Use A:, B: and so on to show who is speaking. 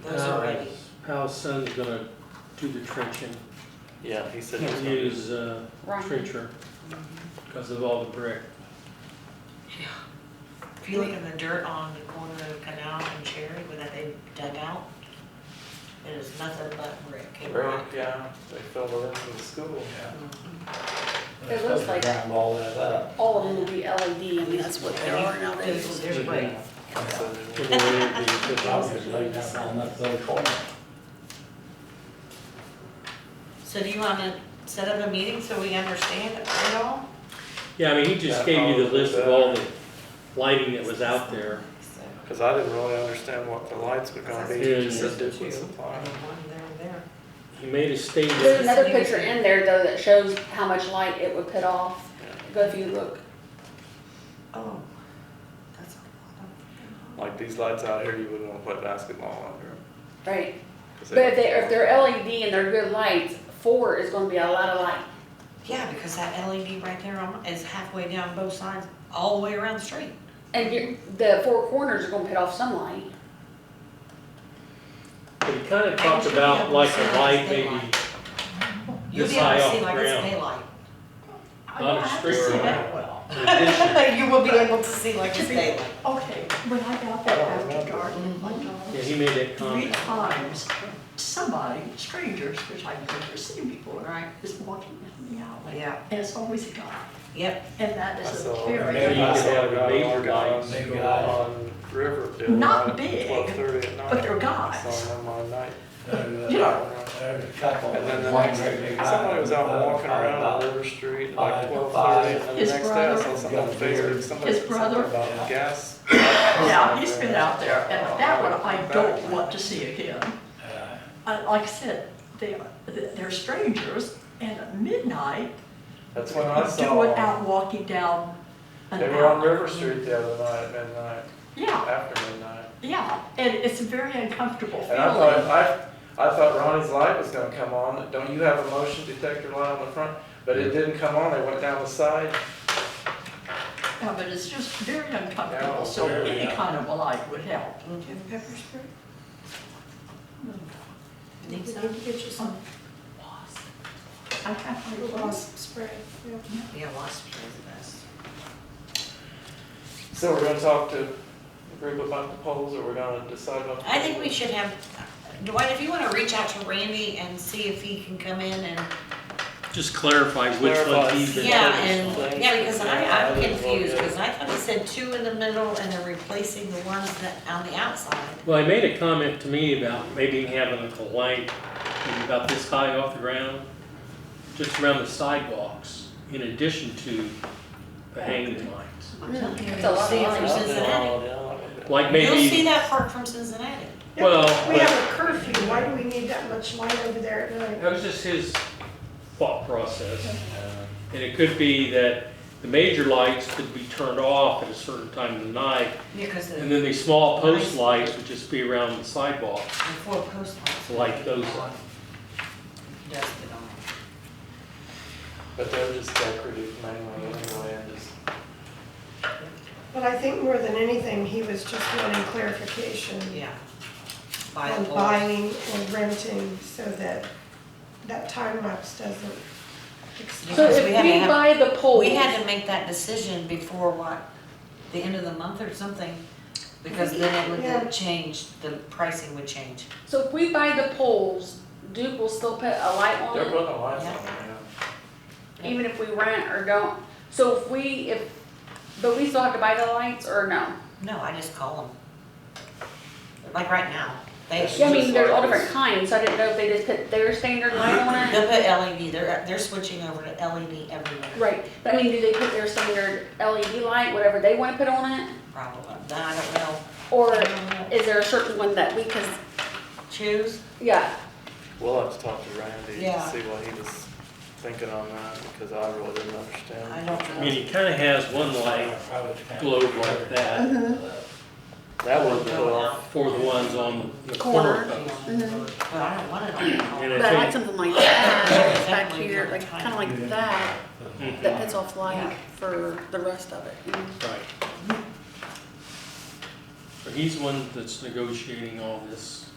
A: Those are ready.
B: How Sun's gonna do the trenching,
C: Yeah, he said.
B: can't use uh,
D: Right.
B: trencher
A: Mm-hmm.
B: because of all the brick.
A: If you look in the dirt on the corner of Canal and Cherry, where that they dug out, it is nothing but brick and rock.
C: Right, yeah, they filled it in with the school.
A: Mm-hmm.
D: It looks like-
E: Round all that up.
D: All of them will be LED, I mean, that's what there are
A: There's,
D: nowadays.
A: there's brick.
B: Mm-hmm. So
C: So they-
B: the way it'd be, it's
E: I was
B: just-
E: just laying that on that little corner.
A: So do you wanna set up a meeting so we understand it all?
B: Yeah, I mean, he just gave you the list of all the lighting that was out there.
A: So,
C: Cause I didn't really understand what the lights were gonna be,
B: Yeah,
C: he just
B: yeah.
C: said Duplin
A: I
C: Supply.
A: mean, one there, there.
B: He made a
D: There's
B: statement,
D: another picture in there though that shows how much light it would put off, but if you look,
A: Oh, that's a lot
C: Like these lights out here, you wouldn't wanna put basketball under them.
D: right? But if they, if they're LED and they're good lights, four is gonna be a lot of light.
A: of. Yeah, because that LED right there on- is halfway down both sides, all the way around the street.
D: And you, the four corners are gonna put off some light.
B: but he kinda talked about like a light maybe
A: You'll
B: This
A: be able
B: high
A: to
B: off
A: see
B: the
A: like it's
B: ground.
A: daylight.
B: Not a
F: have to
B: street
F: see
B: light.
F: that well.
B: in addition.
A: You will be able to see like it's daylight.
F: Okay, when I got there after dark, my
B: Yeah,
F: dogs,
B: he made that
F: three
B: comment.
F: times, somebody, strangers, which I've never seen before,
A: Right.
F: is walking down the alley.
A: Yeah.
F: And it's always a guy,
A: Yep,
F: and that is
C: I
F: a
C: saw-
B: Maybe you
F: very,
B: could have the major
C: I saw a guy
B: lights.
C: on- On Riverdale.
F: Not big,
C: Twelve thirty at night.
F: but they're
C: I
F: guys.
C: saw them on night.
E: There's,
F: Yeah.
E: uh, there's a couple.
C: And then the
E: One
C: next,
E: great big
C: somebody was out
E: island,
C: walking
E: another
C: around
E: island.
C: Water Street at like
E: Five,
C: twelve
E: five.
C: thirty, and then the
F: His
C: next day I saw
F: brother-
C: something on Facebook, somebody
F: His
C: said something
F: brother-
C: about gas.
F: now, he's been out there, and that one I don't want to see again.
E: Uh,
F: I- Like I said, they, are- they're strangers, and at midnight,
C: That's when I saw
F: do it out
C: them.
F: walking down an
C: They were on
F: alley.
C: River Street the other night at midnight,
F: Yeah,
C: after midnight.
F: yeah, and it's a very uncomfortable
C: And
F: feeling.
C: I thought, I, I thought Ronnie's light was gonna come on, don't you have a motion detector light on the front? But it didn't come on, they went down the side,
F: Yeah, but it's just very
C: Yeah,
F: uncomfortable, so
E: very,
F: any
E: yeah.
F: kind of a light would help.
A: do you have pepper spray? Need
G: We
A: some?
G: need to get you some
F: I have my little,
G: wasp spray. Yeah.
A: Yeah, wasp spray is the best.
C: so we're gonna talk to a group about the polls, or we're gonna decide about. the
A: I think we
C: polls?
A: should have, Dwight, if you wanna reach out to Randy and see if he can come in and,
B: Just clarify which ones
C: Clarify.
B: he's been.
A: yeah, and, yeah, because I,
C: Yeah, I
A: I'm
C: didn't look
A: confused,
C: at it.
A: because I thought he said two in the middle and they're replacing the ones that, on the outside.
B: Well, he made a comment to me about maybe having a light maybe about this high off the ground, just around the sidewalks, in addition to the hanging lights.
D: Hmm. It's a lot of
A: See if
D: light.
A: there's Cincinnati.
C: Oh, yeah.
B: Like
A: You'll see
B: maybe,
A: that park from Cincinnati.
B: well,
G: We have a curfew, why do we need that much light over there at night?
B: that was just his thought process. And it could be that the major lights could be turned off at a certain time of the night,
A: Because the,
B: and
A: the
B: then the small post lights would just be around the sidewalk,
A: four post lights.
B: like those lights.
A: Dusted on.
C: But they're just decorative mainly anyway, and just,
G: But I think more than anything, he was just wanting clarification
A: Yeah. By the
G: on
A: poles.
G: buying or renting so that that time lapse doesn't extend.
D: So
A: Because
D: if
A: we had to
D: we
A: have-
D: buy the poles.
A: We had to make that decision before what, the end of the month or something, because then it would
G: Yeah.
A: change, the pricing would change.
D: So if we buy the poles, Duke will still put a light on
A: Oh,
C: they're
D: it,
C: putting the lights on,
D: even if we rent or don't. So if we, if, but we still have to buy the lights or no?
A: No, I just call them. Like right now, they,
D: Yeah, I mean, there's all different kinds, so I didn't know if they just put their standard light on
A: they'll
D: it.
A: put LED, they're, they're switching over to LED everywhere,
D: Right, but I mean, do they put their standard LED light, whatever they wanna put on it?
A: probably. I don't know.
D: Or
A: I don't know.
D: is there a certain one that we can,
A: Choose?
D: yeah,
C: We'll have to talk to Randy to
A: Yeah.
C: see what he was thinking on that, because I really didn't understand.
A: I don't
B: I
A: know.
B: mean, he kinda has one light
E: I was kinda-
B: globe like that
C: That would put off,
B: for the ones on the corner.
A: But
B: post.
A: I don't want it on. the
B: And
A: phone.
B: I
D: but I like
B: think-
D: something like that, that's back here, like, kinda like that,
E: Uh,
B: Hmm.
D: that puts off light for the rest of it.
B: Right. So he's the one that's negotiating all this